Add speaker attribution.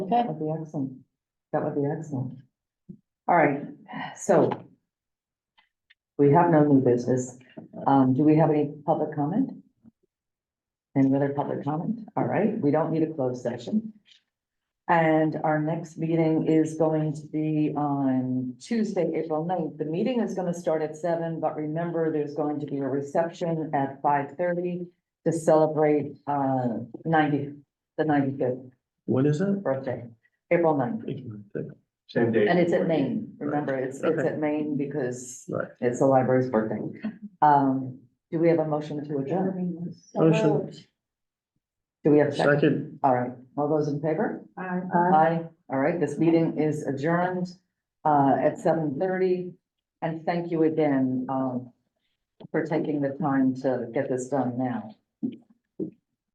Speaker 1: Okay.
Speaker 2: That would be excellent. That would be excellent. All right, so we have no new business. Um, do we have any public comment? Any other public comment? All right, we don't need a closed session. And our next meeting is going to be on Tuesday, April 9th. The meeting is gonna start at seven, but remember, there's going to be a reception at five thirty to celebrate, uh, ninety, the ninety-fifth
Speaker 3: When is it?
Speaker 2: birthday, April 9th.
Speaker 3: Same day.
Speaker 2: And it's at Maine, remember, it's, it's
Speaker 3: Okay.
Speaker 2: at Maine because
Speaker 3: Right.
Speaker 2: it's the library's birthday. Um, do we have a motion to adjourn?
Speaker 3: Motion.
Speaker 2: Do we have a second?
Speaker 3: Second.
Speaker 2: All right, all those in favor? Aye. All right, this meeting is adjourned, uh, at seven thirty. And thank you again, um, for taking the time to get this done now.